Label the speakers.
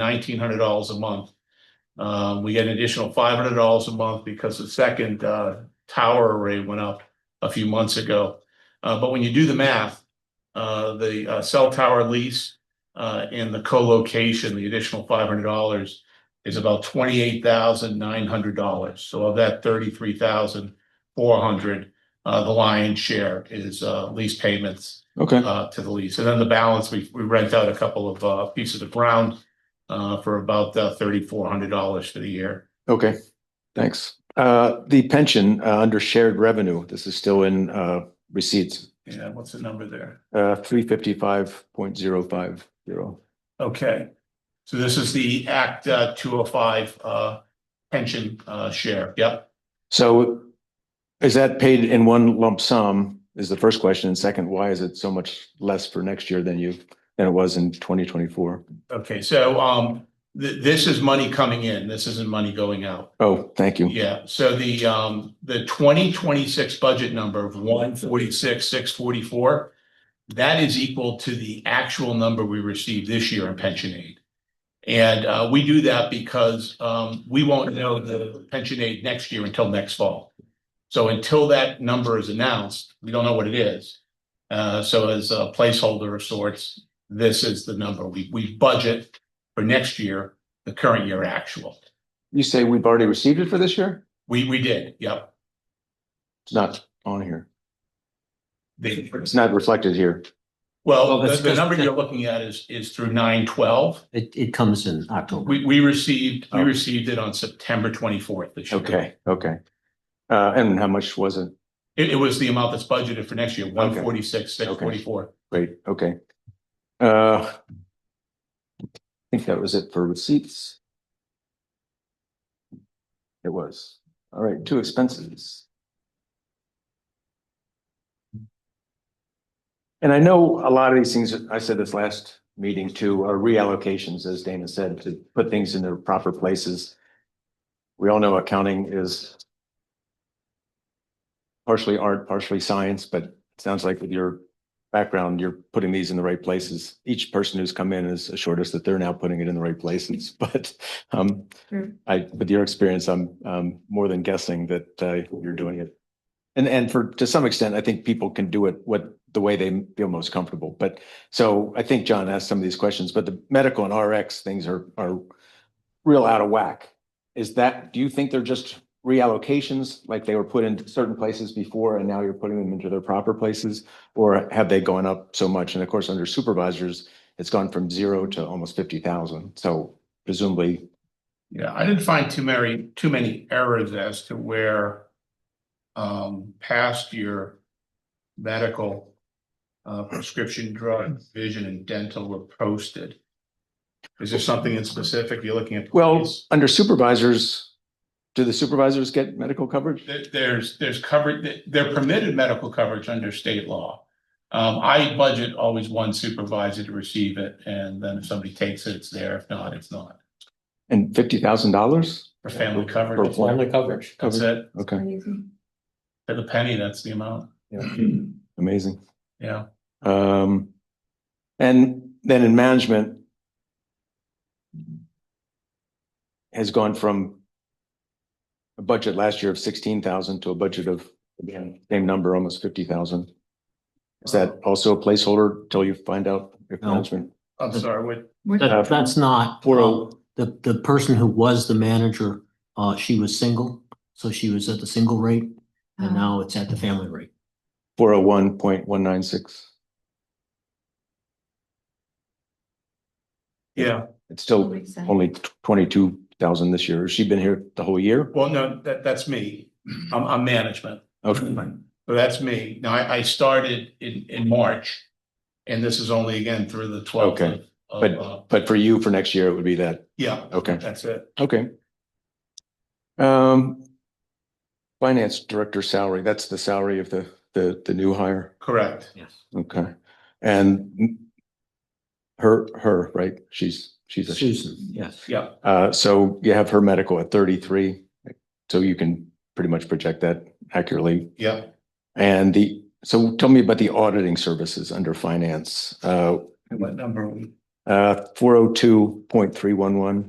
Speaker 1: nineteen hundred dollars a month. Um, we get an additional five hundred dollars a month because the second uh tower array went up a few months ago. Uh, but when you do the math, uh, the uh, cell tower lease uh and the co-location, the additional five hundred dollars is about twenty-eight thousand nine hundred dollars. So of that thirty-three thousand four hundred, uh, the lion's share is uh lease payments
Speaker 2: Okay,
Speaker 1: uh, to the lease. And then the balance, we, we rent out a couple of, uh, pieces of ground, uh, for about, uh, thirty-four hundred dollars for the year.
Speaker 2: okay, thanks. Uh, the pension, uh, under shared revenue, this is still in, uh, receipts,
Speaker 1: Yeah, what's the number there?
Speaker 2: uh, three fifty-five point zero five zero.
Speaker 1: Okay. So this is the Act, uh, two oh five, uh, pension, uh, share. Yep.
Speaker 2: So is that paid in one lump sum is the first question. And second, why is it so much less for next year than you, than it was in twenty twenty-four?
Speaker 1: Okay. So, um, th- this is money coming in. This isn't money going out.
Speaker 2: Oh, thank you.
Speaker 1: Yeah, so the um, the twenty twenty-six budget number of one forty-six, six forty-four. That is equal to the actual number we received this year in pension aid. And uh, we do that because um, we won't know the pension aid next year until next fall. So until that number is announced, we don't know what it is. Uh, so as a placeholder of sorts, this is the number. We we budget for next year, the current year actual.
Speaker 2: You say we've already received it for this year?
Speaker 1: We we did, yep.
Speaker 2: It's not on here.
Speaker 1: They-
Speaker 2: It's not reflected here.
Speaker 1: Well,
Speaker 3: Well,
Speaker 1: the,
Speaker 3: that's
Speaker 1: the
Speaker 3: just-
Speaker 1: number you're looking at is, is through nine twelve.
Speaker 3: It, it comes in October.
Speaker 1: We, we received, we
Speaker 2: Oh.
Speaker 1: received it on September twenty-fourth this year.
Speaker 2: Okay, okay. Uh, and how much was it?
Speaker 1: It, it was the amount that's budgeted for next year, one forty-six, six forty-four.
Speaker 2: Great, okay. Uh. I think that was it for receipts. It was. All right, two expenses. And I know a lot of these things, I said this last meeting too, are reallocations, as Dana said, to put things in their proper places. We all know accounting is partially art, partially science, but it sounds like with your background, you're putting these in the right places. Each person who's come in has assured us that they're now putting it in the right places, but um,
Speaker 4: True.
Speaker 2: I, with your experience, I'm um more than guessing that uh you're doing it. And and for, to some extent, I think people can do it what, the way they feel most comfortable. But so I think John asked some of these questions, but the medical and RX things are are real out of whack. Is that, do you think they're just reallocations, like they were put in certain places before and now you're putting them into their proper places? Or have they gone up so much? And of course, under supervisors, it's gone from zero to almost fifty thousand. So presumably,
Speaker 1: Yeah, I didn't find too many, too many errors as to where um, past year medical uh, prescription drug, vision and dental were posted. Is there something in specific you're looking at?
Speaker 2: well, under supervisors, do the supervisors get medical coverage?
Speaker 1: There, there's, there's coverage, they're permitted medical coverage under state law. Um, I budget always one supervisor to receive it, and then if somebody takes it, it's there. If not, it's not.
Speaker 2: And fifty thousand dollars?
Speaker 1: For family
Speaker 2: For
Speaker 1: coverage,
Speaker 2: one.
Speaker 3: Only coverage.
Speaker 1: that's it.
Speaker 2: Okay,
Speaker 1: For the penny, that's the amount.
Speaker 2: amazing.
Speaker 1: Yeah,
Speaker 2: Um, and then in management has gone from a budget last year of sixteen thousand to a budget of again, same number, almost fifty thousand. Is that also a placeholder till you find out if
Speaker 3: No.
Speaker 2: management?
Speaker 1: I'm sorry, what,
Speaker 2: Uh,
Speaker 3: That, that's not.
Speaker 2: Four
Speaker 3: uh,
Speaker 2: oh,
Speaker 3: The, the person who was the manager, uh, she was single, so she was at the single rate and now it's at the family rate.
Speaker 2: four oh one point one nine six.
Speaker 1: yeah,
Speaker 2: It's still only twenty-two thousand this year. Has she been here the whole year?
Speaker 1: well, no, that, that's me. I'm, I'm management.
Speaker 2: Okay,
Speaker 1: So that's me. Now, I, I started in, in March. And this is only again through the twelfth of,
Speaker 2: Okay,
Speaker 1: of,
Speaker 2: but-
Speaker 1: uh,
Speaker 2: but for you, for next year, it would be that.
Speaker 1: yeah,
Speaker 2: Okay.
Speaker 1: that's it.
Speaker 2: Okay. Um, finance director salary, that's the salary of the, the, the new hire.
Speaker 1: Correct.
Speaker 3: Yes.
Speaker 2: Okay. And her, her, right? She's, she's, a
Speaker 3: Susan, yes.
Speaker 1: Yeah,
Speaker 2: uh, so you have her medical at thirty-three. So you can pretty much project that accurately.
Speaker 1: yeah.
Speaker 2: And the, so tell me about the auditing services under finance. Uh,
Speaker 1: And What number are we?
Speaker 2: Uh, four oh two point three one one.